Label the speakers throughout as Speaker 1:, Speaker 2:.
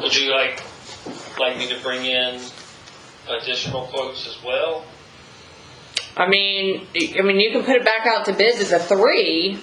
Speaker 1: Would you like, like me to bring in additional quotes as well?
Speaker 2: I mean, I mean, you can put it back out to bids as a three,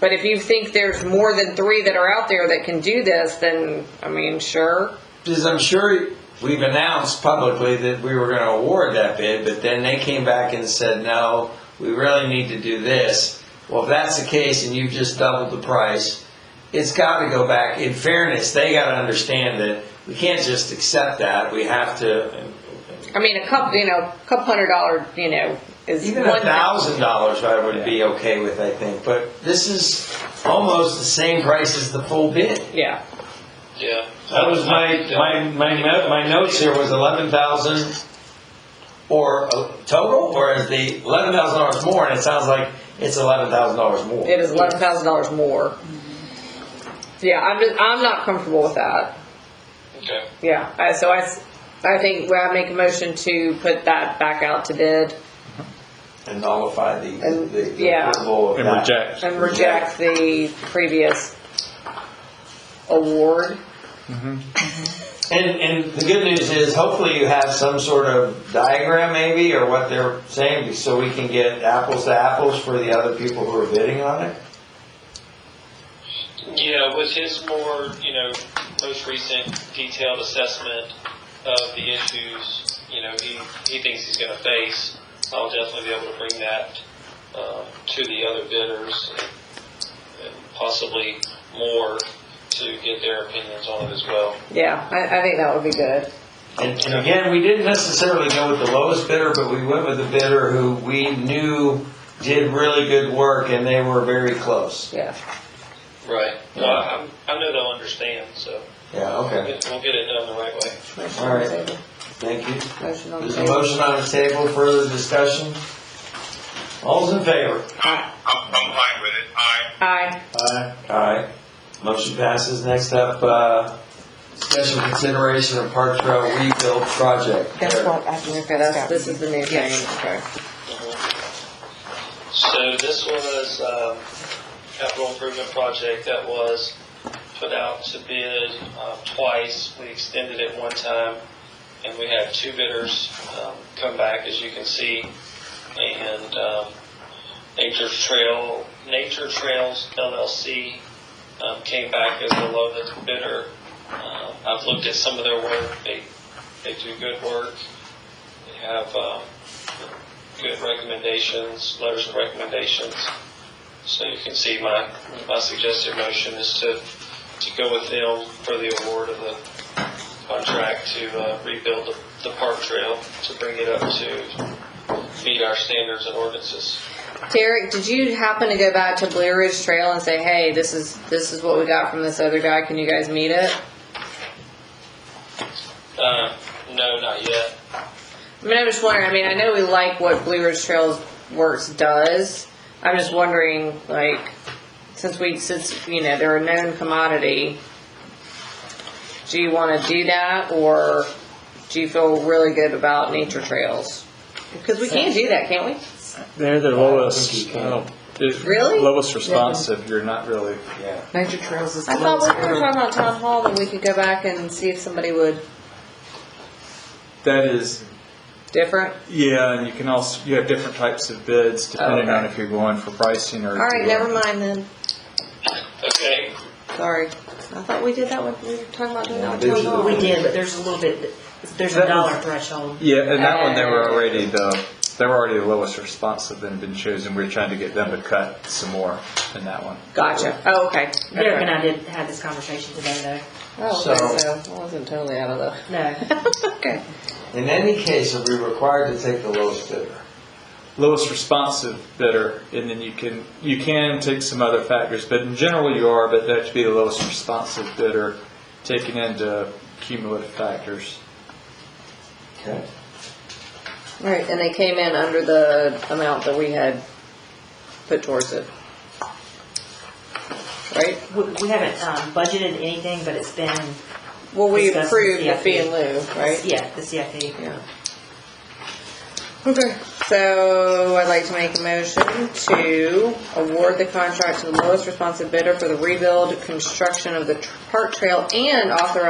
Speaker 2: but if you think there's more than three that are out there that can do this, then, I mean, sure.
Speaker 3: Because I'm sure we've announced publicly that we were going to award that bid, but then they came back and said, no, we really need to do this. Well, if that's the case and you've just doubled the price, it's got to go back. In fairness, they got to understand that we can't just accept that. We have to,
Speaker 2: I mean, a couple, you know, a couple hundred dollar, you know, is
Speaker 3: even
Speaker 2: one
Speaker 3: a
Speaker 2: thing.
Speaker 3: thousand dollars I would be okay with, I think. But this is almost the same price as the full bid.
Speaker 2: Yeah.
Speaker 1: Yeah.
Speaker 3: That was my, my, my, no- my notes here was eleven thousand or uh, total, or is the eleven thousand dollars more, and it sounds like it's eleven thousand dollars more.
Speaker 2: It is eleven thousand dollars more. Yeah, I'm just, I'm not comfortable with that.
Speaker 1: Okay.
Speaker 2: Yeah, I, so I, s- I think I make a motion to put that back out to bid
Speaker 3: And nullify the,
Speaker 2: And-
Speaker 3: the- the
Speaker 2: yeah.
Speaker 3: approval of
Speaker 4: and
Speaker 3: that.
Speaker 4: reject.
Speaker 2: and reject the previous award.
Speaker 3: And, and the good news is hopefully you have some sort of diagram maybe, or what they're saying, so we can get apples to apples for the other people who are bidding on it.
Speaker 1: Yeah, with his more, you know, most recent detailed assessment of the issues, you know, he, he thinks he's gonna face, I'll definitely be able to bring that, um, to the other bidders and- and possibly more to get their opinions on it as well.
Speaker 2: Yeah, I, I think that would be good.
Speaker 3: And, and again, we didn't necessarily go with the lowest bidder, but we went with a bidder who we knew did really good work and they were very close.
Speaker 2: Yeah.
Speaker 1: Right. Well, I, I know they'll understand, so
Speaker 3: Yeah, okay.
Speaker 1: we'll get it done the right way.
Speaker 2: Motion on the
Speaker 3: Alright.
Speaker 2: table.
Speaker 3: Thank you.
Speaker 2: Motion on the
Speaker 3: There's a
Speaker 2: table.
Speaker 3: motion on the table, further discussion? All's in favor?
Speaker 5: I'm, I'm fine with it. I,
Speaker 2: Aye.
Speaker 3: Aye. Alright, motion passes. Next up, uh, special consideration of Park Trail rebuild project.
Speaker 6: That's what I just
Speaker 2: Okay, that's,
Speaker 6: got.
Speaker 2: this is the new thing.
Speaker 6: Yes.
Speaker 2: Okay.
Speaker 1: So this was, um, capital improvement project that was put out to bid, uh, twice. We extended it one time and we had two bidders, um, come back as you can see. And, um, Nature Trail, Nature Trails LLC, um, came back as the lowest bidder. Uh, I've looked at some of their work. They, they do good work. They have, um, good recommendations, letters of recommendations. So you can see my, my suggested motion is to, to go with them for the award of the contract to uh, rebuild the, the park trail, to bring it up to meet our standards and ordinances.
Speaker 2: Derek, did you happen to go back to Blue Ridge Trail and say, hey, this is, this is what we got from this other guy, can you guys meet it?
Speaker 1: Uh, no, not yet.
Speaker 2: I mean, I'm just wondering, I mean, I know we like what Blue Ridge Trails Works does, I'm just wondering, like, since we, since, you know, they're a known commodity, do you wanna do that, or do you feel really good about nature trails? Because we can do that, can't we?
Speaker 4: They're the
Speaker 3: think
Speaker 4: lowest,
Speaker 3: you can.
Speaker 4: oh, the
Speaker 2: Really?
Speaker 4: lowest responsive, you're not really,
Speaker 3: Yeah.
Speaker 6: Nature Trails is.
Speaker 2: I thought we were talking about town hall, and we could go back and see if somebody would,
Speaker 4: that is,
Speaker 2: different?
Speaker 4: yeah, and you can also, you have different types of bids depending
Speaker 2: Okay.
Speaker 4: on if you're going for pricing or. if
Speaker 2: Alright,
Speaker 4: you're-
Speaker 2: never mind then,
Speaker 1: Okay,
Speaker 2: sorry, I thought we did that when we were talking about doing that
Speaker 3: Yeah,
Speaker 2: town hall.
Speaker 6: We did, but there's a little bit, there's a
Speaker 4: That was-
Speaker 6: dollar threshold.
Speaker 4: Yeah, and that one, they were
Speaker 2: Uh,
Speaker 4: already the, they were already the lowest responsive and had been chosen. We were trying to get them to cut some more in that one.
Speaker 2: Gotcha, oh, okay.
Speaker 6: Derek
Speaker 2: Okay.
Speaker 6: and I did have this conversation today,
Speaker 2: Oh, okay,
Speaker 3: So-
Speaker 2: so I wasn't totally out of
Speaker 6: though. No.
Speaker 2: the. okay.
Speaker 3: In any case, are we required to take the lowest bidder?
Speaker 4: Lowest responsive bidder, and then you can, you can take some other factors, but in general you are, but that should be the lowest responsive bidder, taking into cumulative factors.
Speaker 3: Okay.
Speaker 2: All right, and they came in under the amount that we had put towards it. Right?
Speaker 6: We, we haven't, um, budgeted anything, but it's been,
Speaker 2: Well, we
Speaker 6: Discuss the
Speaker 2: approved the fee
Speaker 6: CFP.
Speaker 2: and lieu, right?
Speaker 6: yeah, the CFP.
Speaker 2: Yeah. Okay, so I'd like to make a motion to award the contract to the lowest responsive bidder for the rebuild, construction of the tr- park trail and authorize